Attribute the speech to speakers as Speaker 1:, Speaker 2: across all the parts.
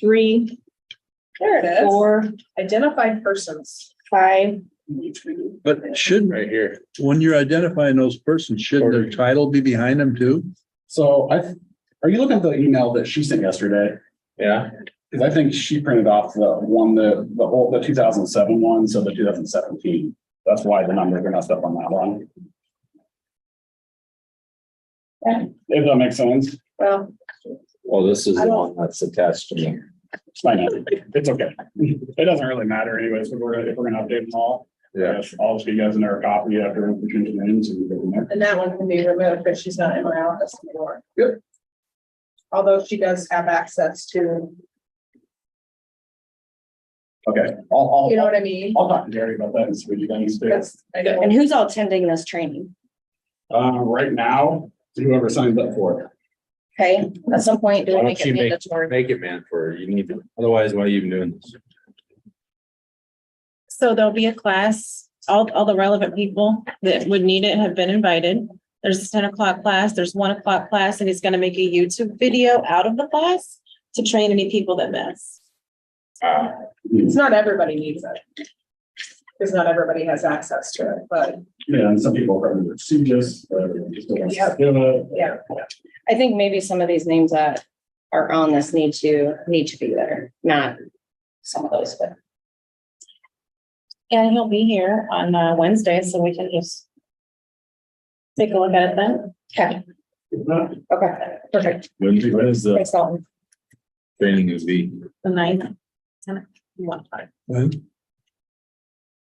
Speaker 1: three,
Speaker 2: There it is.
Speaker 1: four,
Speaker 2: Identified persons.
Speaker 1: five,
Speaker 3: But shouldn't,
Speaker 4: right here.
Speaker 3: when you're identifying those persons, shouldn't their title be behind them too?
Speaker 5: So I, are you looking at the email that she sent yesterday?
Speaker 4: Yeah,
Speaker 5: Cause I think she printed off the one, the, the whole, the two thousand seven one, so the two thousand seventeen. That's why the numbers are messed up on that one.
Speaker 2: Yeah.
Speaker 5: If that makes sense,
Speaker 2: Well,
Speaker 4: well, this is
Speaker 2: I
Speaker 4: the
Speaker 2: don't-
Speaker 4: one that's attached to me.
Speaker 5: I know, it's okay. It doesn't really matter anyways, if we're, if we're gonna update them all. Yes, I'll just get you guys another copy after we change the names and go from there.
Speaker 2: and that one can be removed because she's not in my office anymore.
Speaker 5: Yep.
Speaker 2: Although she does have access to,
Speaker 5: Okay, I'll,
Speaker 2: you know
Speaker 5: I'll,
Speaker 2: what I mean?
Speaker 5: I'll talk to Jerry about that and see what you guys do.
Speaker 2: That's, I don't.
Speaker 1: and who's all attending this training?
Speaker 5: Uh, right now, whoever signs up for it.
Speaker 1: Okay, at some point, do
Speaker 4: Why
Speaker 1: we
Speaker 4: don't
Speaker 1: make
Speaker 4: you
Speaker 1: it
Speaker 4: make-
Speaker 1: mandatory?
Speaker 4: Make it man for, you need to, otherwise why are you even doing this?
Speaker 6: So there'll be a class, all, all the relevant people that would need it have been invited. There's a ten o'clock class, there's one o'clock class, and he's gonna make a YouTube video out of the class to train any people that miss.
Speaker 2: It's not everybody needs it. Because not everybody has access to it, but
Speaker 5: Yeah, and some people are rather procedures, uh, just don't want to do it.
Speaker 2: yeah,
Speaker 1: I think maybe some of these names that are on this need to, need to be there, not some of those, but.
Speaker 6: And he'll be here on uh, Wednesday, so we can just take a look at it then.
Speaker 1: Okay,
Speaker 5: If not,
Speaker 1: okay, perfect.
Speaker 4: When, when is the
Speaker 1: Thanks, Dalton.
Speaker 4: training gonna be?
Speaker 6: The ninth, ten, one,
Speaker 3: When?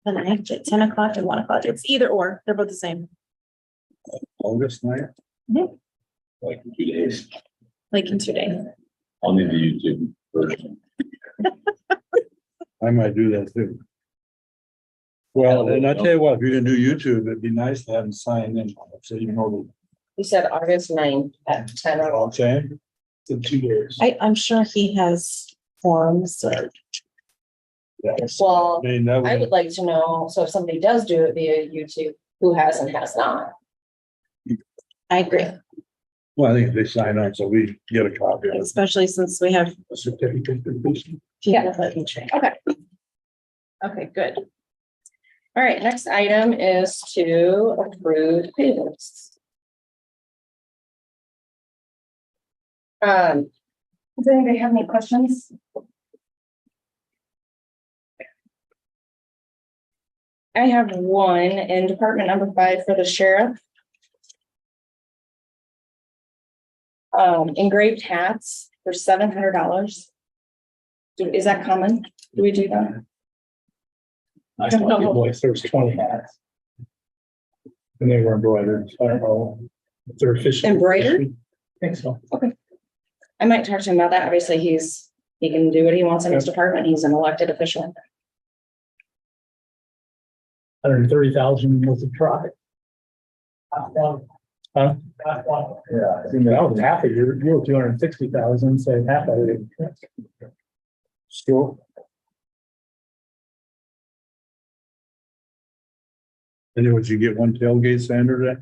Speaker 6: the ninth at ten o'clock and one o'clock. It's either or, they're both the same,
Speaker 3: August ninth?
Speaker 4: Like in two days.
Speaker 6: like in two days.
Speaker 4: I'll need the YouTube version.
Speaker 3: I might do that too. Well, and I tell you what, if you're gonna do YouTube, it'd be nice to have them sign in, so you know,
Speaker 1: You said August ninth at ten o'clock.
Speaker 3: okay? In two years.
Speaker 6: I, I'm sure he has forms or
Speaker 1: Well,
Speaker 3: I mean, that
Speaker 1: I
Speaker 3: would,
Speaker 1: would like to know, so if somebody does do it via YouTube, who has and has not.
Speaker 6: I agree,
Speaker 3: well, I think if they sign on, so we get a copy of
Speaker 6: especially since we have
Speaker 3: the certificate.
Speaker 1: Yeah.
Speaker 6: people that can train.
Speaker 1: Okay, good. All right, next item is to approve payments. Um. Does anybody have any questions? I have one in department number five for the sheriff. Um, engraved hats for seven hundred dollars. Is that common? Do we do that?
Speaker 5: I saw a invoice, there was twenty hats. And they were embroidered, I don't know. if They're official.
Speaker 1: Embroidered?
Speaker 5: Think so.
Speaker 1: I might talk to him about that. Obviously, he's, he can do what he wants in his department. He's an elected official.
Speaker 5: Hundred and thirty thousand was a try. Huh? Yeah, I think that was half of your, you were two hundred and sixty thousand, so half of it. Still.
Speaker 3: Anyways, you get one tailgate Saturday?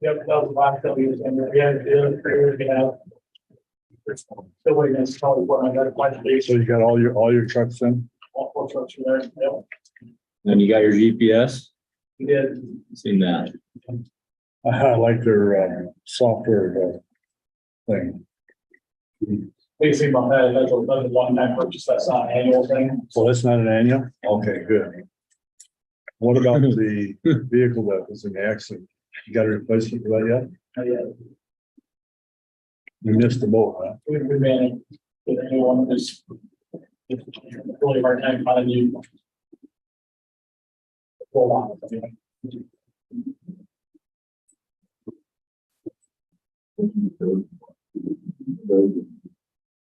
Speaker 5: Yep, that was the last couple years, and we had, the other three years, we have. Still waiting, it's probably what I got, quite a bit,
Speaker 3: So you got all your, all your trucks in?
Speaker 5: all four trucks are there, yeah,
Speaker 4: Then you got your GPS,
Speaker 5: we did.
Speaker 4: seen that?
Speaker 3: I like their, uh, software, uh, thing.
Speaker 5: Basically, my head, that's another one time purchase, that's not an annual thing.
Speaker 3: So that's not an annual? Okay, good. What about the vehicle that was in the accident? You got a replacement for that yet?
Speaker 5: Not yet.
Speaker 3: You missed the boat, huh?
Speaker 5: We, we managed, if anyone is. Really hard time finding you. Hold on, I mean,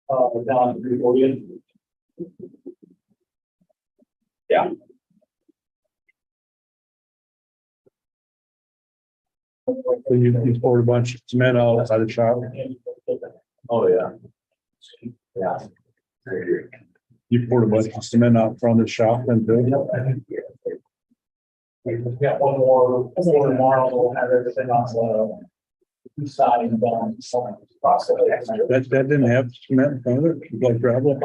Speaker 5: uh, down to three forty. Yeah.
Speaker 3: So you, you poured a bunch of cement out outside the shop.
Speaker 4: Oh, yeah. Yeah. I agree.
Speaker 3: You poured a bunch of cement out front of the shop and then,
Speaker 5: We've got one more, one tomorrow, we'll have everything on slow. Deciding on some process.
Speaker 3: that, that didn't have cement in front of it, like gravel.